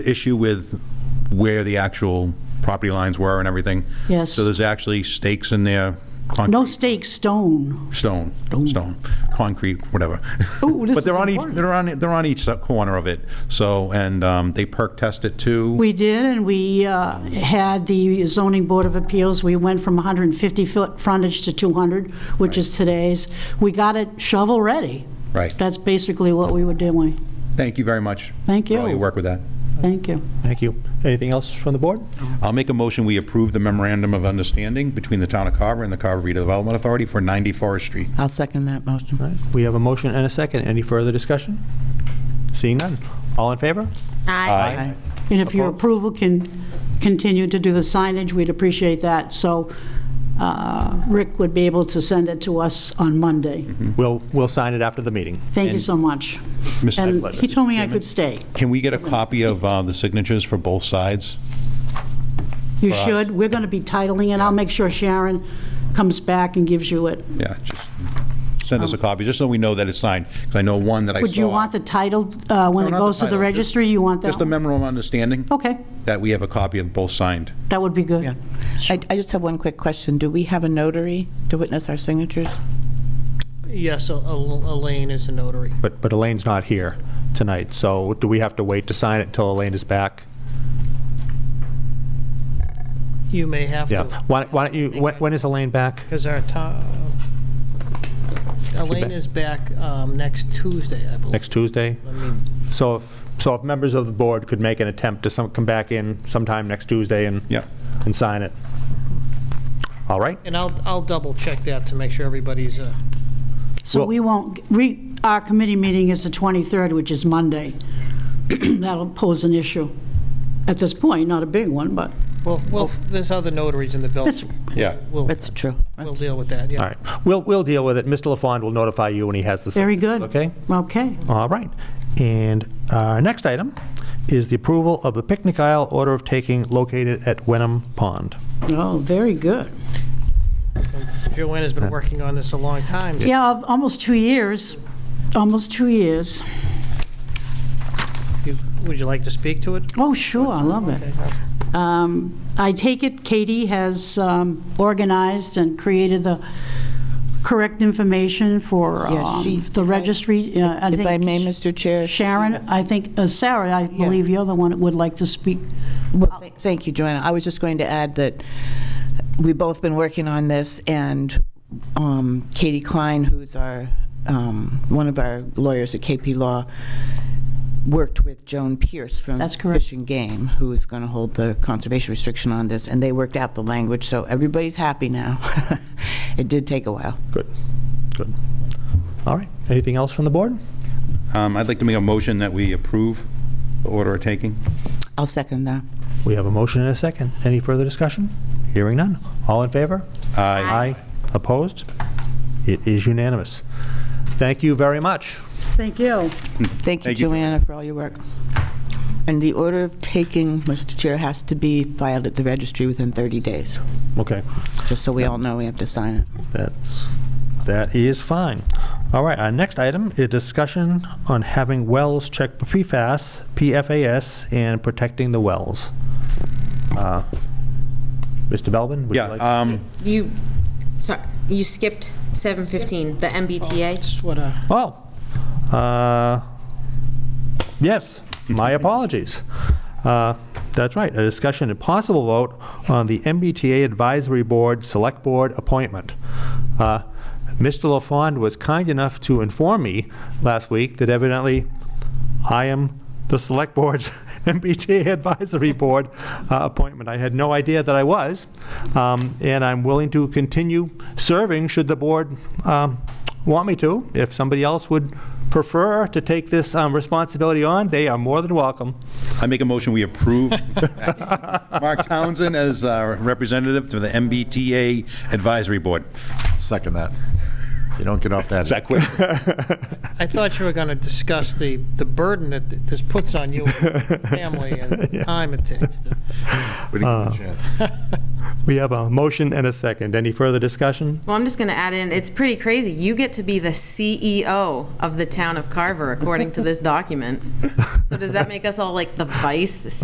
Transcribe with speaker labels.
Speaker 1: issue with where the actual property lines were and everything.
Speaker 2: Yes.
Speaker 1: So there's actually stakes in there,
Speaker 2: No
Speaker 1: concrete,
Speaker 2: stake, stone.
Speaker 1: stone, stone, concrete, whatever.
Speaker 2: Ooh, this
Speaker 1: But they're
Speaker 2: is
Speaker 1: on each,
Speaker 2: important.
Speaker 1: they're on, they're on each sub- corner of it, so, and um, they perk test it too.
Speaker 2: We did, and we uh, had the zoning board of appeals, we went from 150-foot frontage to 200, which is today's. We got it shovel-ready.
Speaker 1: Right.
Speaker 2: That's basically what we were doing.
Speaker 1: Thank you very much.
Speaker 2: Thank
Speaker 1: For all
Speaker 2: you.
Speaker 1: your work with that.
Speaker 2: Thank you.
Speaker 3: Thank you. Anything else from the board?
Speaker 1: I'll make a motion, we approve the memorandum of understanding between the town of Carver and the Carver Redevelopment Authority for 90 Forest Street.
Speaker 4: I'll second that motion.
Speaker 3: All right, We have a motion and a second. Any further discussion? Seeing none. All in favor?
Speaker 4: Aye.
Speaker 2: And if your
Speaker 3: Oppo-
Speaker 2: approval can continue to do the signage, we'd appreciate that. So uh, Rick would be able to send it to us on Monday.
Speaker 3: We'll, we'll sign it after the meeting.
Speaker 2: Thank you so much.
Speaker 1: Mr.
Speaker 2: And
Speaker 1: Pleasure.
Speaker 2: he told me I could stay.
Speaker 1: Can we get a copy of uh, the signatures for both sides?
Speaker 2: You should. We're going to be titling it. I'll make sure Sharon comes back and gives you it.
Speaker 1: Yeah, just send us a copy, just so we know that it's signed, because I know one that I saw.
Speaker 2: Um, Would you want the title, uh, when
Speaker 1: No,
Speaker 2: it
Speaker 1: not
Speaker 2: goes to the
Speaker 1: title, just-
Speaker 2: registry, you want that?
Speaker 1: Just a memorandum of understanding
Speaker 2: Okay,
Speaker 1: that we have a copy of both signed.
Speaker 2: that would be
Speaker 4: Yeah.
Speaker 2: good.
Speaker 4: I I just have one quick question. Do we have a notary to witness our signatures?
Speaker 5: Yes, Al- Al- Elaine is a notary.
Speaker 3: But, but Elaine's not here tonight, so do we have to wait to sign it until Elaine is back?
Speaker 5: You may have
Speaker 3: Yeah.
Speaker 5: to,
Speaker 3: Why why don't you, when when is Elaine back?
Speaker 5: because our town, Elaine
Speaker 3: ba-
Speaker 5: is back um, next Tuesday, I believe.
Speaker 3: Next Tuesday?
Speaker 5: I mean,
Speaker 3: So if, so if members of the board could make an attempt to some, come back in sometime next Tuesday and,
Speaker 1: Yeah.
Speaker 3: and sign it. All right?
Speaker 5: And I'll, I'll double check that to make sure everybody's, uh,
Speaker 2: So
Speaker 3: Well-
Speaker 2: we won't, we, our committee meeting is the 23rd, which is Monday. That'll pose an issue at this point, not a big one, but
Speaker 5: well, well,
Speaker 3: Oh.
Speaker 5: there's other notaries in the
Speaker 2: it's,
Speaker 5: building.
Speaker 1: Yeah.
Speaker 5: We'll,
Speaker 4: That's true.
Speaker 5: we'll deal with that,
Speaker 3: All
Speaker 5: yeah.
Speaker 3: right. We'll, we'll deal with it. Mr. LaFond will notify you when he has the.
Speaker 2: very good.
Speaker 3: Okay?
Speaker 2: Okay.
Speaker 3: All right. And our next item is the approval of the picnic aisle order of taking located at Wenham Pond.
Speaker 2: Oh, very good.
Speaker 5: Joanne has been working on this a long time.
Speaker 2: Yeah, of- almost two years, almost two years.
Speaker 5: You- Would you like to speak to it?
Speaker 2: Oh, sure, I love it. Um, I take it Katie has um, organized and created the correct information for
Speaker 4: Yes,
Speaker 2: um,
Speaker 4: she-
Speaker 2: the registry. uh, I
Speaker 4: If I
Speaker 2: think
Speaker 4: may, Mr. Chair.
Speaker 2: Sharon, I think, uh, Sarah, I believe you're the one that would like to speak.
Speaker 4: Well, th- Thank you, Joanna. I was just going to add that we've both been working on this, and um, Katie Klein, who's our, um, one of our lawyers at KP Law, worked with Joan Pierce from
Speaker 2: That's correct.
Speaker 4: Fish and Game, who is going to hold the conservation restriction on this, and they worked out the language, so everybody's happy now. It did take a while.
Speaker 3: Good, good. All right. Anything else from the board?
Speaker 1: Um, I'd like to make a motion that we approve the order of taking.
Speaker 4: I'll second that.
Speaker 3: We have a motion and a second. Any further discussion? Hearing none. All in favor?
Speaker 1: Aye.
Speaker 3: Aye. Opposed? It is unanimous. Thank you very much.
Speaker 2: Thank you.
Speaker 4: Thank you,
Speaker 1: Thank you,
Speaker 4: Joanna, for all your work. And the order of taking, Mr. Chair, has to be filed at the registry within 30 days,
Speaker 3: Okay.
Speaker 4: just so we all know we have to sign it.
Speaker 3: That's, that is fine. All right, our next item is discussion on having wells checked for PFAS, PFAS, and protecting the wells. Uh, Mr. Belbin? would you
Speaker 1: Yeah,
Speaker 3: like-
Speaker 1: um,
Speaker 6: You, sorry, you skipped 7:15, the MBTA.
Speaker 5: That's what, uh,
Speaker 3: Oh, uh, yes, my apologies. Uh, That's right, a discussion and possible vote on the MBTA Advisory Board Select Board appointment. Uh, Mr. LaFond was kind enough to inform me last week that evidently I am the Select Board's MBTA Advisory Board uh, appointment. I had no idea that I was, um, and I'm willing to continue serving should the board um, want me to. If somebody else would prefer to take this um, responsibility on, they are more than welcome.
Speaker 1: I make a motion, we approve Mark Townsend as uh, our representative to the MBTA Advisory Board.
Speaker 7: Second that. You don't get off that.
Speaker 1: Is that quick?
Speaker 5: I thought you were going to discuss the, the burden that th- this puts on you, and your family, and the time it takes. to-
Speaker 7: We didn't give you a chance.
Speaker 3: We have a motion and a second. Any further discussion?
Speaker 6: Well, I'm just going to add in, it's pretty crazy. You get to be the E CEO of the town of Carver, according to this document. So does that make us all like the vice